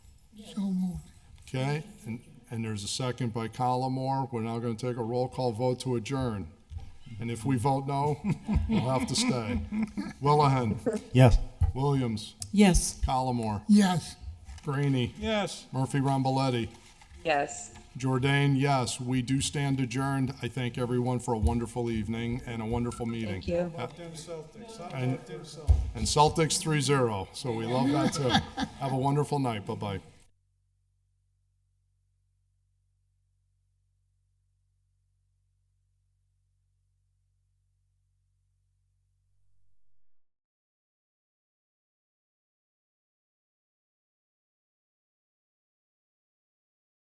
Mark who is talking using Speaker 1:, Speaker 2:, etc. Speaker 1: Okay, and, and there's a second by Collmore. We're now gonna take a roll call vote to adjourn. And if we vote no, we'll have to stay. Willahen,
Speaker 2: Yes.
Speaker 1: Williams,
Speaker 3: Yes.
Speaker 1: Collmore,
Speaker 4: Yes.
Speaker 1: Greenie,
Speaker 2: Yes.
Speaker 1: Murphy Ramboletti,
Speaker 5: Yes.
Speaker 1: Jordan, yes, we do stand adjourned. I thank everyone for a wonderful evening and a wonderful meeting.
Speaker 5: Thank you.
Speaker 1: And Celtics three zero, so we love that too. Have a wonderful night, bye-bye.